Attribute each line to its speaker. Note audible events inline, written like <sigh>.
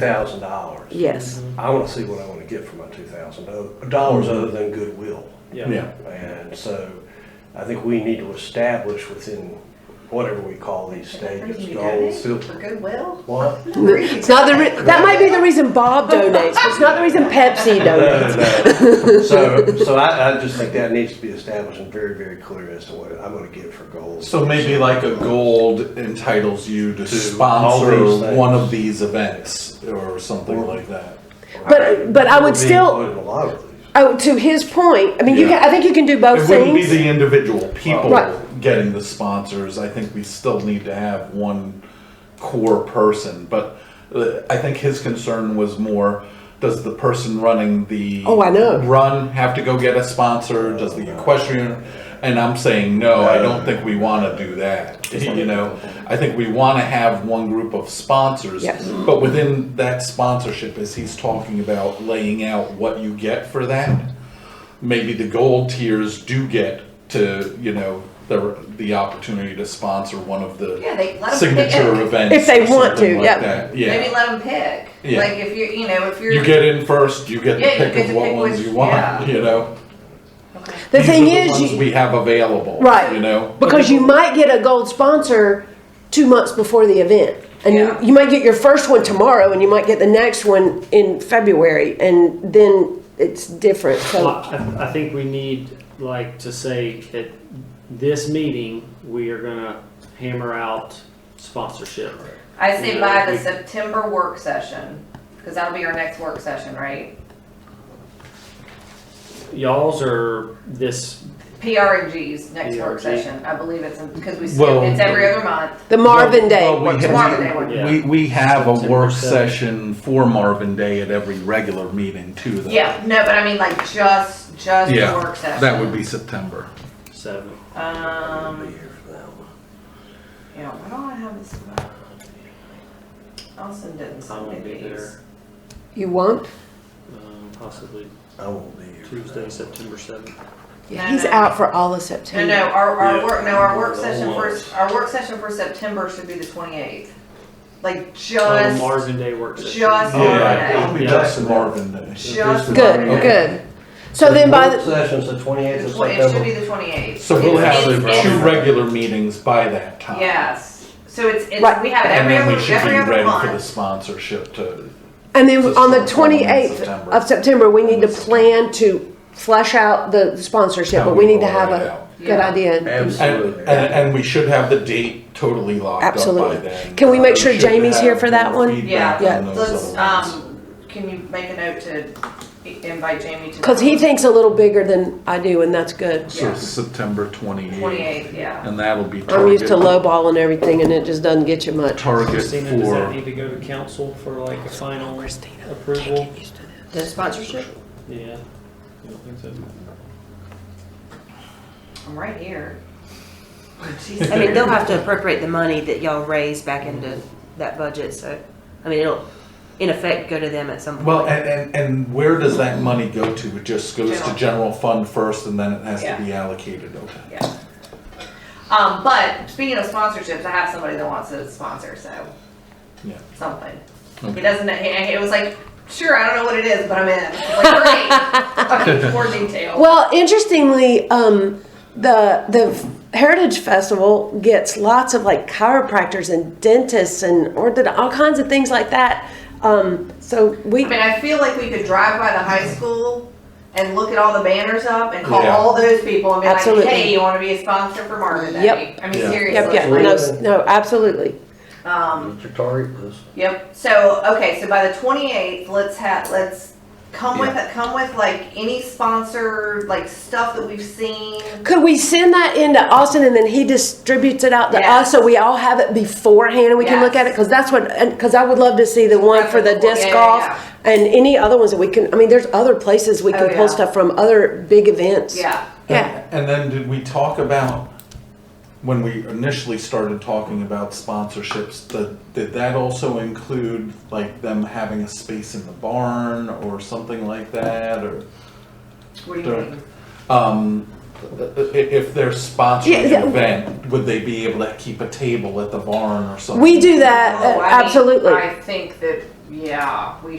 Speaker 1: thousand dollars.
Speaker 2: Yes,
Speaker 1: I wanna see what I wanna get for my two thousand uh, dollars other than goodwill.
Speaker 3: Yeah,
Speaker 1: And so I think we need to establish within whatever we call these stages, goals, sil-
Speaker 2: <laughs>
Speaker 4: For goodwill?
Speaker 1: what?
Speaker 2: it's not the re- that might be the reason Bob donates, but it's not the reason
Speaker 3: <laughs>
Speaker 2: Pepsi donates.
Speaker 1: No. So, so I, I just think that needs to be established and very, very clear as to what I'm gonna get for goals.
Speaker 3: so maybe like a gold entitles you to
Speaker 1: To all these
Speaker 3: sponsor
Speaker 1: things.
Speaker 3: one of these events or something like that.
Speaker 2: But but I
Speaker 1: We're being
Speaker 2: would still,
Speaker 1: loaded in A lot of these.
Speaker 2: oh, to his point, I mean, you
Speaker 3: Yeah.
Speaker 2: can, I think you can do both
Speaker 3: It wouldn't be
Speaker 2: things.
Speaker 3: the individual people
Speaker 2: Right.
Speaker 3: getting the sponsors, I think we still need to have one core person, but uh, I think his concern was more, does the person running the.
Speaker 2: Oh, I know.
Speaker 3: Run have to go get a sponsor, does the equestrian, and I'm saying, no, I don't think we wanna do that, you know? I think we wanna have one group of sponsors,
Speaker 2: Yes.
Speaker 3: but within that sponsorship, as he's talking about laying out what you get for that maybe the gold tiers do get to, you know, the, the opportunity to sponsor one of the
Speaker 4: Yeah, they- let 'em
Speaker 3: signature
Speaker 4: pick.
Speaker 3: events.
Speaker 2: If they
Speaker 3: or
Speaker 2: want to,
Speaker 3: something like
Speaker 2: yep.
Speaker 3: that,
Speaker 4: Maybe
Speaker 3: Yeah.
Speaker 4: let them pick.
Speaker 3: Yeah.
Speaker 4: Like if you, you know, if you're.
Speaker 3: You get in first, you get
Speaker 4: Yeah, you
Speaker 3: to
Speaker 4: get
Speaker 3: pick
Speaker 4: to
Speaker 3: of what
Speaker 4: pick
Speaker 3: ones
Speaker 4: which-
Speaker 3: you
Speaker 4: yeah.
Speaker 3: want, you know?
Speaker 4: Okay.
Speaker 2: The
Speaker 3: These are
Speaker 2: thing is,
Speaker 3: ones
Speaker 2: you-
Speaker 3: We have available,
Speaker 2: Right.
Speaker 3: you know?
Speaker 2: because you might get a gold sponsor two months before the event. And
Speaker 4: Yeah.
Speaker 2: you, you might get your first one tomorrow and you might get the next one in February and then it's different.
Speaker 5: Well,
Speaker 2: So,
Speaker 5: I, I think we need, like, to say at this meeting, we are gonna hammer out sponsorship.
Speaker 4: I say
Speaker 5: Yeah,
Speaker 4: by the
Speaker 5: we-
Speaker 4: September work session, because that'll be our next work session, right?
Speaker 5: Y'all's are this,
Speaker 4: PRG's next work
Speaker 5: PRG.
Speaker 4: session. I believe it's, because we, skip-
Speaker 3: Well-
Speaker 4: it's every other month.
Speaker 2: the Marvin Day.
Speaker 3: Well, we
Speaker 2: works.
Speaker 3: have-
Speaker 4: Marvin Day work.
Speaker 5: Yeah.
Speaker 3: We, we have a
Speaker 5: September
Speaker 3: work
Speaker 5: seventh.
Speaker 3: session for Marvin Day at every regular meeting too, though.
Speaker 4: Yeah, no, but I mean like just, just the
Speaker 3: Yeah,
Speaker 4: work session.
Speaker 3: that would be September.
Speaker 5: seven.
Speaker 4: Um,
Speaker 1: Be here for that one.
Speaker 4: yeah, why don't I have this? Austin didn't
Speaker 5: I
Speaker 4: send me
Speaker 5: won't be
Speaker 4: these.
Speaker 5: there,
Speaker 2: You won't?
Speaker 5: um, possibly
Speaker 1: I won't be here. for that
Speaker 5: Tuesday,
Speaker 1: one.
Speaker 5: September seventh.
Speaker 2: Yeah,
Speaker 4: No,
Speaker 2: he's
Speaker 4: no.
Speaker 2: out for all of
Speaker 4: No,
Speaker 2: September.
Speaker 4: no, our, our
Speaker 5: Yeah.
Speaker 4: work, no, our work
Speaker 5: Yeah.
Speaker 4: session
Speaker 5: Almost.
Speaker 4: for, our work session for September should be the twenty-eighth. Like
Speaker 5: Oh,
Speaker 4: just,
Speaker 5: Marvin Day work session.
Speaker 4: just
Speaker 3: Yeah,
Speaker 4: Marvin
Speaker 3: It'll be
Speaker 5: Yeah.
Speaker 3: just Marvin Day.
Speaker 4: just.
Speaker 2: Good,
Speaker 4: Marvin Day.
Speaker 2: good. So then by the,
Speaker 1: Work Sessions the twenty-eighth
Speaker 4: The
Speaker 1: of
Speaker 4: tw- It should
Speaker 1: September.
Speaker 4: be the twenty-eighth.
Speaker 3: So we'll have the
Speaker 1: It's-
Speaker 3: two regular meetings by that time.
Speaker 4: Yes, so it's, it's,
Speaker 2: Right.
Speaker 4: we have it
Speaker 3: And
Speaker 4: every
Speaker 3: then
Speaker 4: other,
Speaker 3: we should be
Speaker 4: every other
Speaker 3: ready for the
Speaker 4: month.
Speaker 3: sponsorship to,
Speaker 2: And then
Speaker 3: Just
Speaker 2: on the
Speaker 3: for the one in
Speaker 2: 28th
Speaker 3: September.
Speaker 2: of September, we need to
Speaker 3: September.
Speaker 2: plan to flesh out the sponsorship,
Speaker 3: How
Speaker 2: but we
Speaker 3: we
Speaker 2: need to
Speaker 3: roll
Speaker 2: have
Speaker 3: it
Speaker 2: a
Speaker 3: out.
Speaker 2: good
Speaker 4: Yeah.
Speaker 2: idea.
Speaker 3: and,
Speaker 1: Absolutely.
Speaker 3: and, and we should have the date totally locked up by
Speaker 2: Absolutely.
Speaker 3: then.
Speaker 2: Can we make sure
Speaker 3: should
Speaker 2: Jamie's
Speaker 3: have
Speaker 2: here for that
Speaker 3: more
Speaker 2: one?
Speaker 3: feedback
Speaker 4: Yeah,
Speaker 3: on those
Speaker 4: let's,
Speaker 3: other ones.
Speaker 4: um, can you make a note to invite Jamie to?
Speaker 2: Because he thinks a little bigger than I do, and that's good.
Speaker 3: So
Speaker 4: yeah.
Speaker 3: September twenty-eighth.
Speaker 4: Twenty-eighth, yeah.
Speaker 3: And that'll be target.
Speaker 2: I'm used to lowball and everything, and it just doesn't get you much.
Speaker 3: Target
Speaker 5: Christina, does that
Speaker 3: for,
Speaker 5: need to go to council for like a final approval?
Speaker 2: The sponsorship?
Speaker 5: Yeah. I don't think so.
Speaker 4: I'm right here.
Speaker 6: I mean, they'll have to appropriate the money that y'all raise back into that budget, so, I mean, it'll, in effect, go to them at some point.
Speaker 3: well, and, and, and where does that money go to? It just goes to
Speaker 4: General.
Speaker 3: general fund first and then it has to
Speaker 4: Yeah.
Speaker 3: be allocated, okay?
Speaker 4: Yeah. Um, but speaking of sponsorships, I have somebody that wants to sponsor, so
Speaker 3: Yeah. Hmm.
Speaker 4: something.
Speaker 3: Okay.
Speaker 4: He doesn't. He, it was like, sure, I don't know what it is, but I'm in. It's
Speaker 3: <laughs>
Speaker 4: Like, great. okay, more detail.
Speaker 2: Well, interestingly, um, the the Heritage Festival gets lots of like chiropractors and dentists and ortho all kinds of things like that. Um, so we.
Speaker 4: I mean, I feel like we could drive by the high school and look at all the banners up and call
Speaker 3: Yeah.
Speaker 4: all those people and be
Speaker 2: Absolutely.
Speaker 4: like, hey, you want to be a sponsor for Marvin Day?
Speaker 2: Yep.
Speaker 4: I mean,
Speaker 3: Yeah.
Speaker 2: Yep,
Speaker 4: seriously.
Speaker 2: yep, no, no, absolutely.
Speaker 4: Um,
Speaker 1: Mr. Target was.
Speaker 4: Yep. So okay, so by the twenty eighth, let's have let's come with come with like any sponsor like stuff that we've seen.
Speaker 2: Could we send that into Austin and then he distributes it out to us
Speaker 4: Yes.
Speaker 2: so we all have it beforehand and we can look at it?
Speaker 4: Yes.
Speaker 2: Because that's what, because I would love to see the one for the
Speaker 4: Yeah, yeah,
Speaker 2: disc
Speaker 4: yeah.
Speaker 2: golf and any other ones that we can, I mean, there's other places we
Speaker 4: Oh,
Speaker 2: can pull
Speaker 4: yeah.
Speaker 2: stuff from, other big events.
Speaker 4: Yeah.
Speaker 2: Yeah.
Speaker 3: And then did we talk about, when we initially started talking about sponsorships, the, did that also include like them having a space in the barn or something like that, or?
Speaker 4: What do you
Speaker 3: Sure.
Speaker 4: mean?
Speaker 3: Um, i- i- if they're
Speaker 2: Yeah,
Speaker 3: sponsoring
Speaker 2: yeah.
Speaker 3: an event, would they be able to keep a table at the barn or something?
Speaker 2: We do that,
Speaker 4: Oh,
Speaker 2: uh,
Speaker 4: I mean,
Speaker 2: absolutely.
Speaker 4: I think that yeah, we